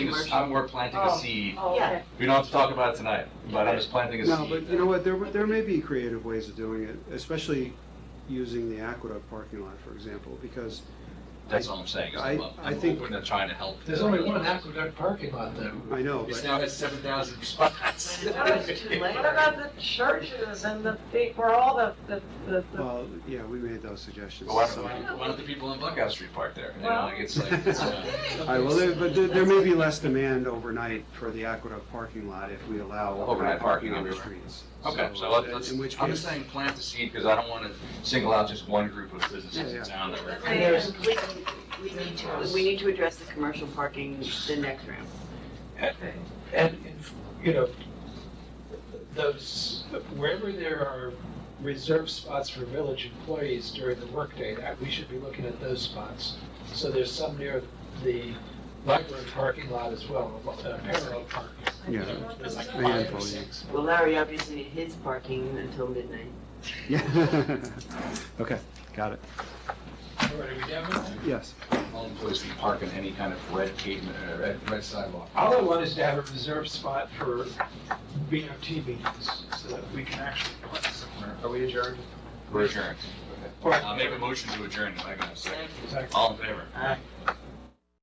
just, commercial. I'm, we're planting a Oh. seed. Oh, okay. We don't have to talk about it tonight, but I'm just planting a seed. No, but you know what, there, there may be creative ways of doing it, especially using the Aqueduct parking lot, for example, because That's what I'm saying, is I- I'm, I I'm think- hoping to try to help. There's only one aqueduct parking lot Mm-hmm. though. I know, It's but now has seven thousand spots. That was too late. What about the churches and the, big- where all the, the, the, the- Well, yeah, we made those suggestions. But Why so- Oh, don't, why don't- why don't the people in Buckout Street park there? You know, Well- like, it's like, it's, uh, All right, well, there- but there, there may be less demand overnight for the Aqueduct parking lot if we allow overnight parking on the everywhere. streets. okay, so uh, let's, In which I'm case, just saying plant the seed, because I don't want to single out just one group of businesses Yeah, in town that And we're. there's- We need to, we need to address the commercial parking the next round. And, and, you know, those, wherever there are reserved spots for village employees during the workday, that, we should be looking at those spots. So there's some near the library parking lot as well, uh, parallel parking. yeah, There's like A handful, five yeah. or six. Well, Larry obviously needs his parking until midnight. yeah. Okay, got it, What are we down with? yes. All employees can park in any kind of red pavement, uh, red, red sidewalk. All I want is to have a reserved spot for BOT meetings, so that we can actually park somewhere. Are we adjourned? We're adjourned. Or- I'll make a motion to adjourn, if I can have a second. Exactly. All in favor? Aye.